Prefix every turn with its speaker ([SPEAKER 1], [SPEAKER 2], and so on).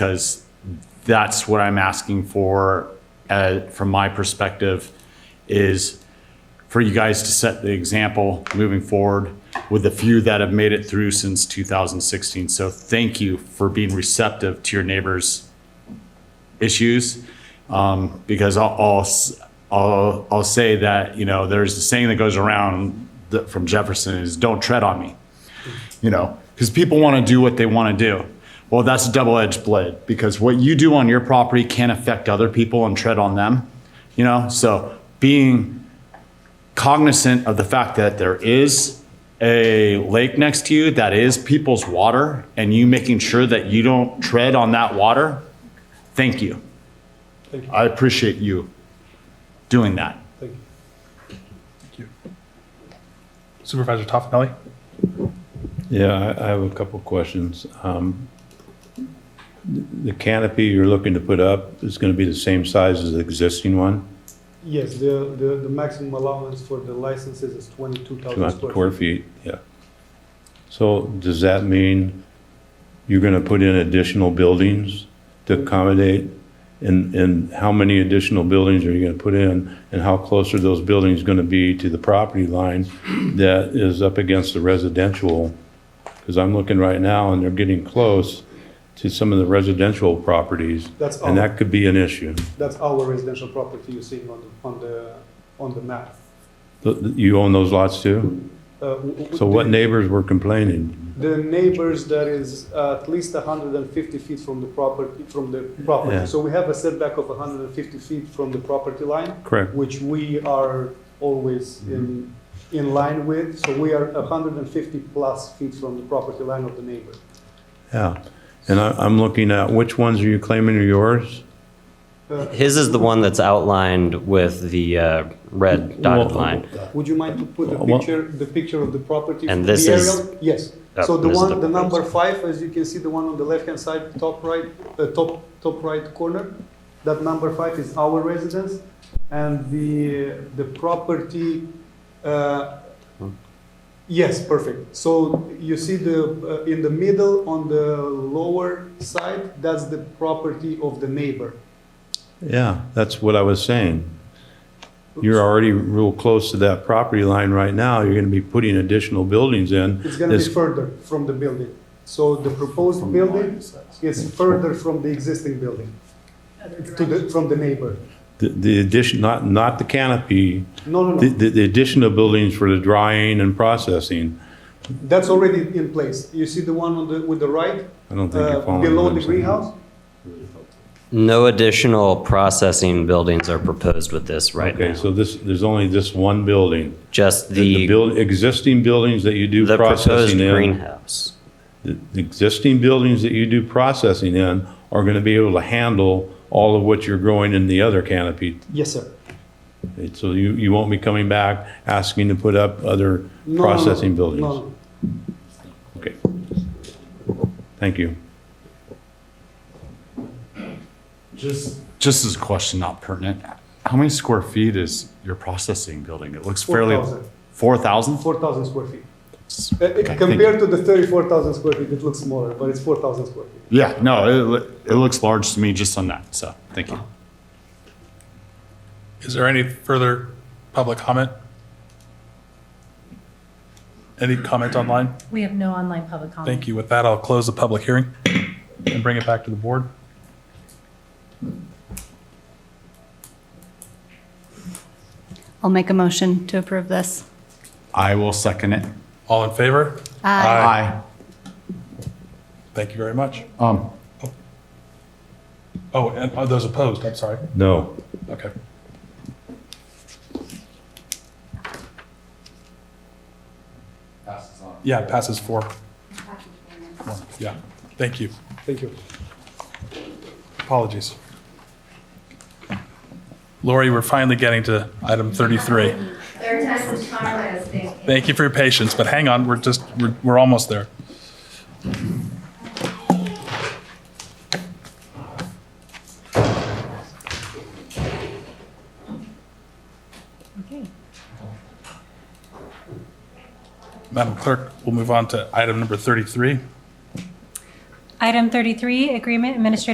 [SPEAKER 1] because that's what I'm asking for, uh, from my perspective, is for you guys to set the example moving forward with the few that have made it through since 2016. So thank you for being receptive to your neighbors' issues. Um, because I'll, I'll, s- I'll, I'll say that, you know, there's a saying that goes around that- from Jefferson is don't tread on me you know, because people want to do what they want to do. Well, that's a double edged blade because what you do on your property can affect other people and tread on them, you know? So being cognizant of the fact that there is a lake next to you that is people's water and you making sure that you don't tread on that water, thank you.
[SPEAKER 2] Thank you.
[SPEAKER 1] I appreciate you doing that.
[SPEAKER 2] Thank you. Supervisor Toffenelli?
[SPEAKER 3] Yeah, I- I have a couple of questions. Um, The canopy you're looking to put up is going to be the same size as the existing one,
[SPEAKER 4] Yes, the, the, the maximum allowance for the licenses is twenty-two thousand
[SPEAKER 3] 200
[SPEAKER 4] square.
[SPEAKER 3] square feet, yeah. So does that mean you're going to put in additional buildings to accommodate? And, and how many additional buildings are you going to put in? And how close are those buildings going to be to the property line that is up against the residential? Because I'm looking right now and they're getting close to some of the residential properties.
[SPEAKER 4] That's
[SPEAKER 3] And
[SPEAKER 4] our,
[SPEAKER 3] that could be an issue.
[SPEAKER 4] that's our residential property you see on, the- on the, on the map.
[SPEAKER 3] Th- th- You own those lots too?
[SPEAKER 4] Uh, w- w-
[SPEAKER 3] So what
[SPEAKER 4] the-
[SPEAKER 3] neighbors were complaining?
[SPEAKER 4] The neighbors that is at least hundred and fifty feet from the property, from the
[SPEAKER 3] Yeah.
[SPEAKER 4] property. So we have a setback of hundred and fifty feet from the property line,
[SPEAKER 3] Correct.
[SPEAKER 4] which we are always in,
[SPEAKER 3] Mm-hmm.
[SPEAKER 4] in line with. So we are hundred and fifty plus feet from the property line of the neighbor.
[SPEAKER 3] Yeah, and I, I'm looking at which ones are you claiming are yours?
[SPEAKER 4] Uh,
[SPEAKER 5] His is the one that's outlined with the uh, red dotted
[SPEAKER 3] Well,
[SPEAKER 5] line.
[SPEAKER 4] Would you mind to put the
[SPEAKER 3] Well-
[SPEAKER 4] picture, the picture of the property?
[SPEAKER 5] Uh, And
[SPEAKER 4] the
[SPEAKER 5] this is-
[SPEAKER 4] aerial? Yes.
[SPEAKER 5] Uh,
[SPEAKER 4] So the
[SPEAKER 5] this is
[SPEAKER 4] one,
[SPEAKER 5] the
[SPEAKER 4] the number five, as you can see, the one on the left-hand side, top right, uh, top, top right corner, that number five is our residence. And the, the property, uh,
[SPEAKER 5] Hmm.
[SPEAKER 4] yes, perfect. So you see the, uh, in the middle, on the lower side, that's the property of the neighbor.
[SPEAKER 3] Yeah, that's what I was saying. You're already real close to that property line right now, you're gonna be putting additional buildings in.
[SPEAKER 4] It's gonna be
[SPEAKER 3] This-
[SPEAKER 4] further from the building. So the proposed building is further from the existing building, to the, from the neighbor.
[SPEAKER 3] The, the addition, not, not the canopy,
[SPEAKER 4] No, no,
[SPEAKER 3] the,
[SPEAKER 4] no,
[SPEAKER 3] the the addition of buildings for the drying and processing.
[SPEAKER 4] that's already in place. You see the one on the, with the right,
[SPEAKER 3] I don't think
[SPEAKER 4] uh,
[SPEAKER 3] you're following. what
[SPEAKER 4] below
[SPEAKER 3] I'm
[SPEAKER 4] the
[SPEAKER 3] saying.
[SPEAKER 4] greenhouse?
[SPEAKER 5] No additional processing buildings are proposed with this right
[SPEAKER 3] Okay,
[SPEAKER 5] now.
[SPEAKER 3] so this, there's only this one building.
[SPEAKER 5] Just
[SPEAKER 3] The
[SPEAKER 5] the,
[SPEAKER 3] build, existing buildings that you do
[SPEAKER 5] the proposed
[SPEAKER 3] processing in.
[SPEAKER 5] greenhouse.
[SPEAKER 3] the the existing buildings that you do processing in are going to be able to handle all of what you're growing in the other canopy.
[SPEAKER 4] Yes, sir.
[SPEAKER 3] It- So you, you won't be coming back asking to put up other
[SPEAKER 4] No, no, no,
[SPEAKER 3] processing buildings?
[SPEAKER 4] no, no.
[SPEAKER 3] Okay. Thank you.
[SPEAKER 1] Just, just as a question, not pertinent, how many square feet is your processing building? It looks fairly.
[SPEAKER 4] 4,000.
[SPEAKER 1] 4,000?
[SPEAKER 4] 4,000 square feet. Uh,
[SPEAKER 1] Okay,
[SPEAKER 4] it-
[SPEAKER 1] thank
[SPEAKER 4] Compared
[SPEAKER 1] you.
[SPEAKER 4] to the 34,000 square feet, it looks smaller, but it's 4,000 square feet.
[SPEAKER 1] Yeah, no, it, loo- it looks large to me just on that, so, thank you.
[SPEAKER 2] Is there any further public comment? Any comment online?
[SPEAKER 6] We have no online public comment.
[SPEAKER 2] Thank you. With that, I'll close the public hearing and bring it back to the board.
[SPEAKER 7] I'll make a motion to approve this.
[SPEAKER 1] I will second it.
[SPEAKER 2] All in favor?
[SPEAKER 7] Aye.
[SPEAKER 2] Thank you very much.
[SPEAKER 1] Um,
[SPEAKER 2] Oh, and are those opposed? I'm sorry.
[SPEAKER 3] No.
[SPEAKER 2] Okay. Yeah, passes four. One, Yeah, thank you.
[SPEAKER 4] Thank you.
[SPEAKER 2] Apologies. Lori, we're finally getting to item 33.
[SPEAKER 8] Third time is charm, I was thinking.
[SPEAKER 2] Thank you for your patience, but hang on, we're just, we're, we're almost there.
[SPEAKER 6] Okay.
[SPEAKER 2] Madam Clerk, we'll move on to item number 33.
[SPEAKER 6] Item 33, Agreement Administrative